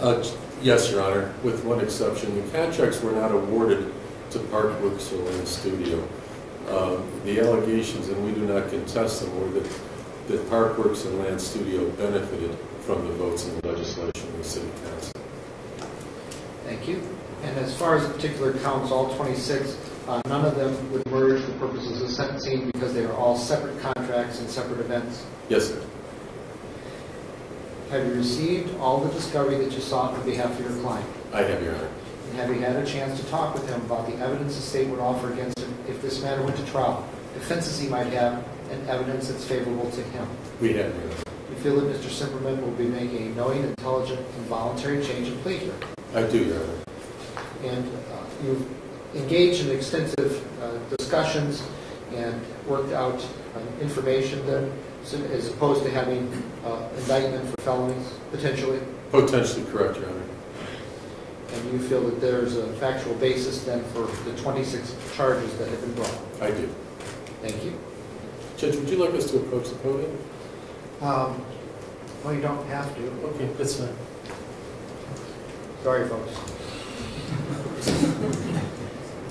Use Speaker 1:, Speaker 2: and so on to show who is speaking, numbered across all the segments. Speaker 1: Uh, Yes, Your Honor, with one exception. The contracts were not awarded to Park Works or Lynn Studio. Um, The allegations, and we do not contest them, were that, that Park Works and Land Studio benefited from the votes and legislation of the city council.
Speaker 2: Thank you. And as far as particular counts, all 26, uh, none of them would merge for purposes of sentencing because they are all separate contracts and separate events.
Speaker 1: Yes, sir.
Speaker 2: Have you received all the discovery that you sought on behalf of your client?
Speaker 1: I have, Your Honor.
Speaker 2: And have you had a chance to talk with him about the evidence the state would offer against him if this matter went to trial, defenses he might have, and evidence that's favorable to him?
Speaker 1: We have, Your Honor.
Speaker 2: You feel that Mr. Simperman will be making a knowing, intelligent, and voluntary change in plea here?
Speaker 1: I do, Your Honor.
Speaker 2: And uh, you've engaged in extensive uh, discussions and worked out uh, information then, so- as opposed to having uh, indictment for felonies, potentially?
Speaker 1: Potentially correct, Your Honor.
Speaker 2: And you feel that there's a factual basis then for the 26 charges that have been brought?
Speaker 1: I do.
Speaker 2: Thank you.
Speaker 1: Judge, would you like us to approach the podium?
Speaker 2: Um, Well, you don't have to.
Speaker 1: Okay, that's fine.
Speaker 2: Sorry, folks.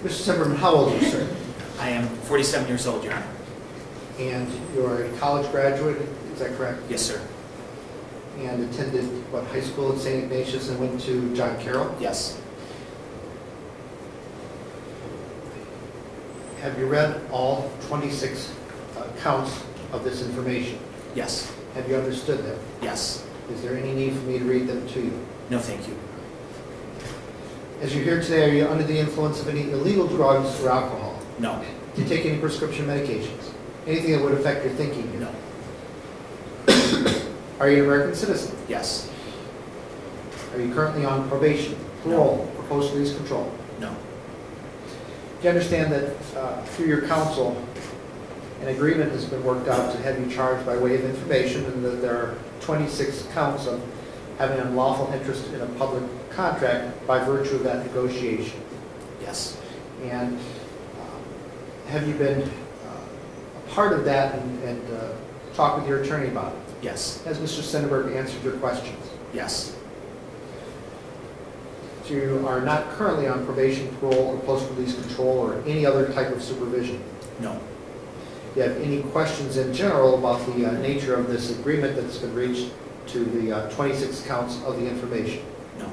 Speaker 2: Mr. Simperman, how old are you, sir?
Speaker 3: I am 47 years old, Your Honor.
Speaker 2: And you're a college graduate, is that correct?
Speaker 3: Yes, sir.
Speaker 2: and attended, what, high school at St. Ignatius and went to John Carroll.
Speaker 3: Yes.
Speaker 2: Have you read all 26 uh, counts of this information?
Speaker 3: Yes.
Speaker 2: Have you understood them?
Speaker 3: Yes.
Speaker 2: Is there any need for me to read them to you?
Speaker 3: No, thank you.
Speaker 2: As you're here today, are you under the influence of any illegal drugs or alcohol?
Speaker 3: No.
Speaker 2: Do you take any prescription medications? Anything that would affect your thinking? here?
Speaker 3: No.
Speaker 2: Are you an American citizen?
Speaker 3: Yes.
Speaker 2: Are you currently on probation, parole, or post-release control?
Speaker 3: No.
Speaker 2: Do you understand that uh, through your counsel, an agreement has been worked out to have you charged by way of information and that there are 26 counts of having unlawful interest in a public contract by virtue of that negotiation?
Speaker 3: Yes.
Speaker 2: And um, have you been uh, a part of that and- and uh, talked with your attorney about it?
Speaker 3: Yes.
Speaker 2: Has Mr. Sennenberg answered your questions?
Speaker 3: Yes.
Speaker 2: So you are not currently on probation, parole, or post-release control, or any other type of supervision?
Speaker 3: No.
Speaker 2: you have any questions in general about the uh, nature of this agreement that's been reached to the uh, 26 counts of the information.
Speaker 3: No.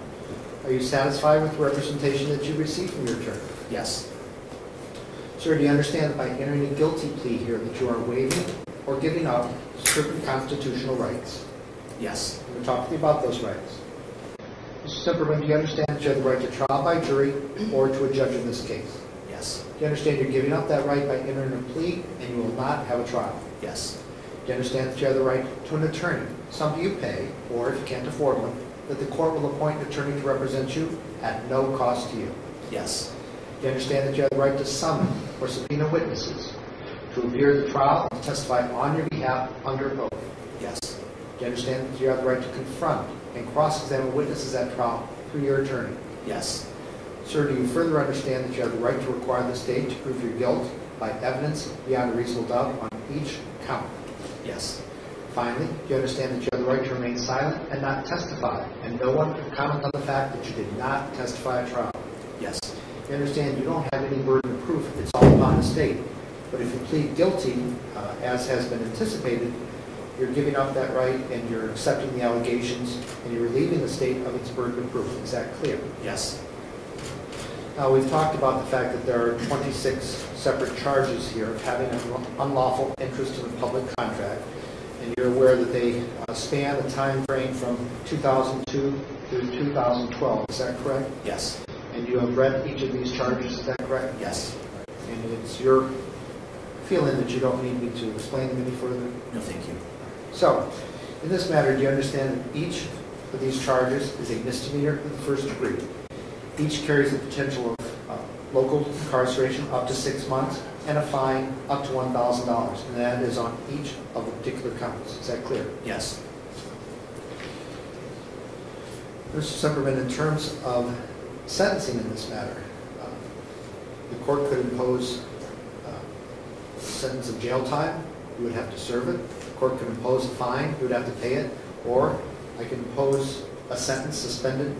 Speaker 2: Are you satisfied with the representation that you received from your attorney?
Speaker 3: Yes.
Speaker 2: Sir, do you understand that by entering a guilty plea here that you are waiving or giving up certain constitutional rights?
Speaker 3: Yes.
Speaker 2: We're talking about those rights. Mr. Simperman, do you understand that you have the right to trial by jury or to a judge in this case?
Speaker 3: Yes.
Speaker 2: Do you understand you're giving up that right by entering a plea and you will not have a trial?
Speaker 3: Yes.
Speaker 2: Do you understand that you have the right to an attorney, something you pay, or if you can't afford one, that the court will appoint an attorney to represent you at no cost to you?
Speaker 3: Yes.
Speaker 2: Do you understand that you have the right to summon or subpoena witnesses to appear at the trial and testify on your behalf under oath? Do
Speaker 3: Yes.
Speaker 2: you understand that you have the right to confront and cross-examine witnesses at trial through your attorney?
Speaker 3: Yes.
Speaker 2: Sir, do you further understand that you have the right to require the state to prove your guilt by evidence beyond a reasonable doubt on each count?
Speaker 3: Yes.
Speaker 2: Finally, you understand that you have the right to remain silent and not testify, and no one can comment on the fact that you did not testify at trial.
Speaker 3: Yes.
Speaker 2: You understand you don't have any burden of proof, it's all upon the state. But if you plead guilty, uh, as has been anticipated, you're giving up that right and you're accepting the allegations, and you're relieving the state of its burden of proof. Is that clear?
Speaker 3: Yes.
Speaker 2: Now, Uh, we've talked about the fact that there are 26 separate charges here of having an unlawful interest in a public contract, and you're aware that they uh, span the time frame from 2002 through 2012, is that correct?
Speaker 3: Yes.
Speaker 2: And you have read each of these charges, is that correct?
Speaker 3: Yes.
Speaker 2: And it's your feeling that you don't need me to explain them any further?
Speaker 3: No, thank you.
Speaker 2: So, in this matter, do you understand that each of these charges is a misdemeanor of the first degree? Each carries the potential of uh, local incarceration up to six months and a fine up to $1,000, and that is on each of the particular counts. Is that clear?
Speaker 3: Yes.
Speaker 2: Mr. Semperman, in terms of sentencing in this matter, uh, the court could impose uh, a sentence of jail time, you would have to serve it. The court could impose a fine, you would have to pay it. Or I could impose a sentence suspended